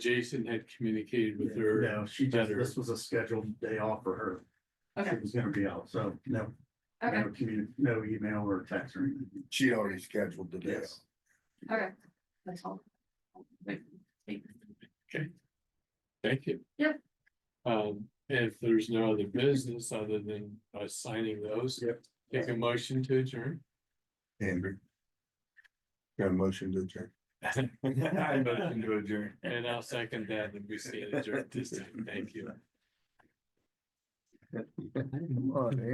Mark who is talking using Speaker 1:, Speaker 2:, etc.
Speaker 1: Jason had communicated with her.
Speaker 2: No, she just,
Speaker 1: better.
Speaker 2: this was a scheduled day off for her. She
Speaker 3: Okay,
Speaker 2: was gonna be out, so no,
Speaker 3: okay,
Speaker 2: no commu- no email or text or anything.
Speaker 4: She already scheduled the day.
Speaker 2: Yes.
Speaker 3: okay. That's all. Wait, wait.
Speaker 1: Thank you.
Speaker 3: Yep.
Speaker 1: Um, if there's no other business other than us signing those.
Speaker 2: Yep.
Speaker 1: Take a motion to adjourn.
Speaker 4: Andrew. Got a motion to adjourn.
Speaker 1: I motion to adjourn. And I'll second that and we stand adjourned this time. Thank you.
Speaker 4: Come on,